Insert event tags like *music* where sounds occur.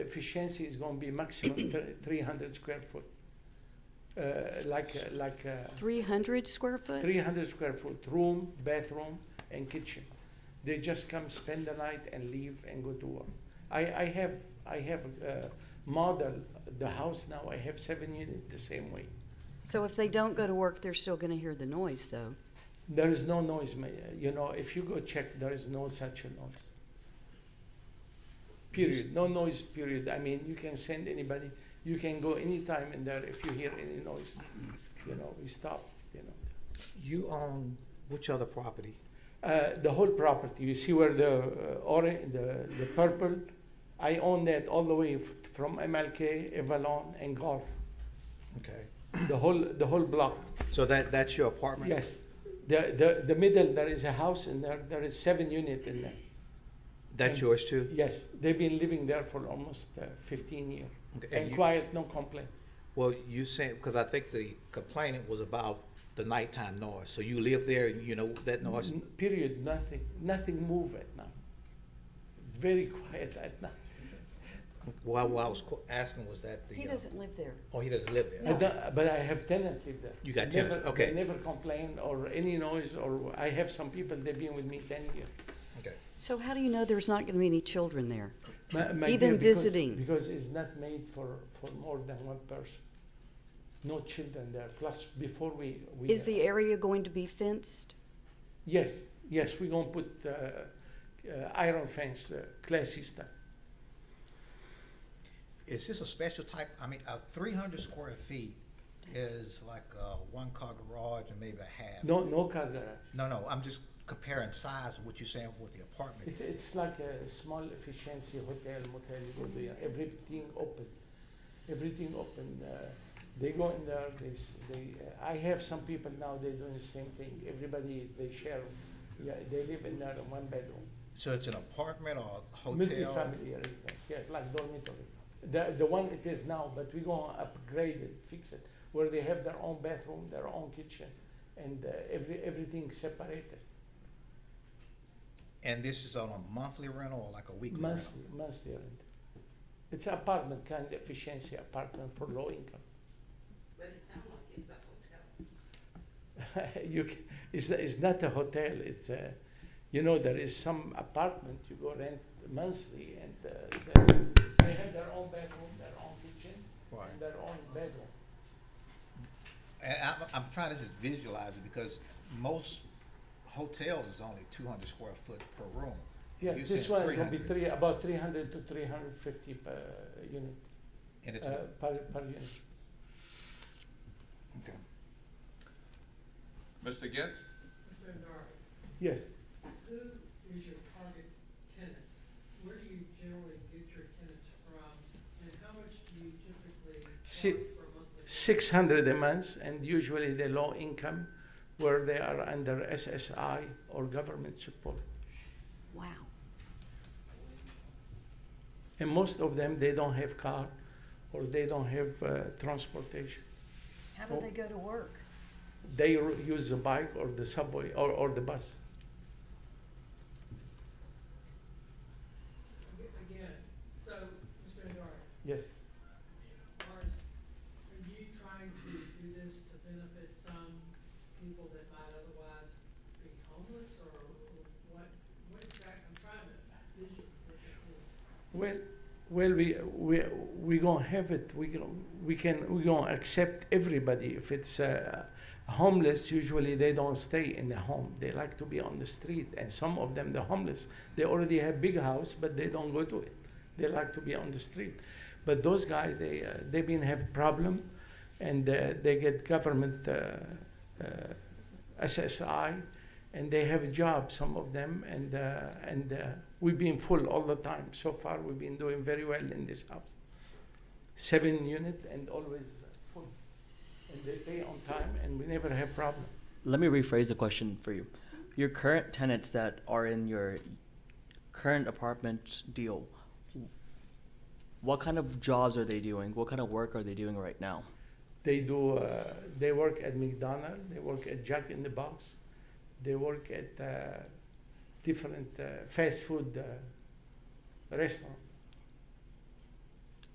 efficiency is going to be maximum thir- 300 square foot. Uh, like, uh, like uh, 300 square foot? 300 square foot room, bathroom, and kitchen. They just come spend the night and leave and go to work. I, I have I have uh, model the house now. I have seven units the same way. So if they don't go to work, they're still going to hear the noise, though. There is no noise, ma- you know. If you go check, there is no such a noise. Period. No noise. Period. I mean, you can send anybody. You can go anytime in there. If you hear any noise, you know, we stop. You know. You own which other property? Uh, the whole property. You see where the uh, orange, the, the purple, I own that all the way f- from MLK, Avalon, and Golf. Okay, The whole the whole block. so that, that's your apartment? Yes. The, the the middle there is a house in there. There is seven unit in there. That's yours too? Yes, they've been living there for almost uh, 15 years. Okay, And you- quiet, no complaint. Well, you said, because I think the complainant was about the nighttime noise, so you live there and you know that noise? N- Period. Nothing. Nothing move at night. Very *laughs* quiet at night. Mm-hmm. Well, what I was qu- asking was that the. He uh, doesn't live there. Oh, he doesn't live there? I don't- But I have tenants live there. You got Never- tenants, okay. they Never complain or any noise or, I have some people, they've been with me ten years. Okay. So how do you know there's not going to be any children there? My- my Even dear, because- visiting. Because it's not made for, for more than one person. No children there, plus before we. we- Is the area going to be fenced? Yes, yes, we're gonna put, uh, uh, iron fence, uh, classy stuff. Is this a special type, I mean, uh, three hundred square feet is like a one-car garage and maybe a half? No, no car garage. No, no, I'm just comparing size of what you're saying with the apartment. It's, it's like a small efficiency hotel, motel, you go there, everything open, everything open. Uh, they go in there, they, s- they, uh, I have some people now, they're doing the same thing. Everybody, they share, yeah, they live in there in one bedroom. So it's an apartment or a hotel? Multi-family, arrangement, yeah, like dormitory. The, the one it is now, but we're gonna upgrade it, fix it, where they have their own bathroom, their own kitchen, and uh, every, everything separated. And this is on a monthly rental or like a weekly rental? Monthly, monthly rent. It's apartment, kind of efficiency apartment for low income. But it sounds like it's a hotel. *laughs* You, ca- it's, it's not a hotel, it's a, you know, there is some apartment you go rent monthly and uh, they- they have their own bathroom, their own kitchen, Right. and their own bedroom. And I'm, I'm trying to just visualize it because most hotels is only two hundred square foot per room. Yeah, You're this saying one will be 300. three, about three hundred to three hundred fifty per unit, And it's, uh, per, per unit. okay. Mr. Getz? Mr. Andari, Yes. who is your target tenants? Where do you generally get your tenants from? And how much do you typically Si- charge for monthly? 600 a month, and usually the low income where they are under SSI or government support. Wow. And most of them, they don't have car or they don't have uh, transportation. How do do they they go to work? They r- use the bike or the subway or, or the bus. Aga- Again, so, Mr. Andari, Yes. are, are you trying to do this to benefit some people that might otherwise be homeless or or what, what exactly, I'm trying to vision what this is. Well, well, we we we gonna have it. We gonna, we can we gonna accept everybody. If it's uh, homeless, usually they don't stay in the home. They like to be on the street. And some of them, the homeless, they already have big house, but they don't go to it. They like to be on the street. But those guys, they uh, they been have problem, and uh, they get government uh, uh, SSI, and they have a job. Some of them, and uh, and. Uh, We've been full all the time. So far, we've been doing very well in this house. Seven unit and always full. And they pay on time and we never have problem. Let me rephrase the question for you. Your current tenants that are in your current apartment deal, what kind of jobs are they doing? What kind of work are they doing right now? They do, uh, they work at McDonald's, they work at Jack in the Box, they work at uh, different uh, fast food uh, restaurant.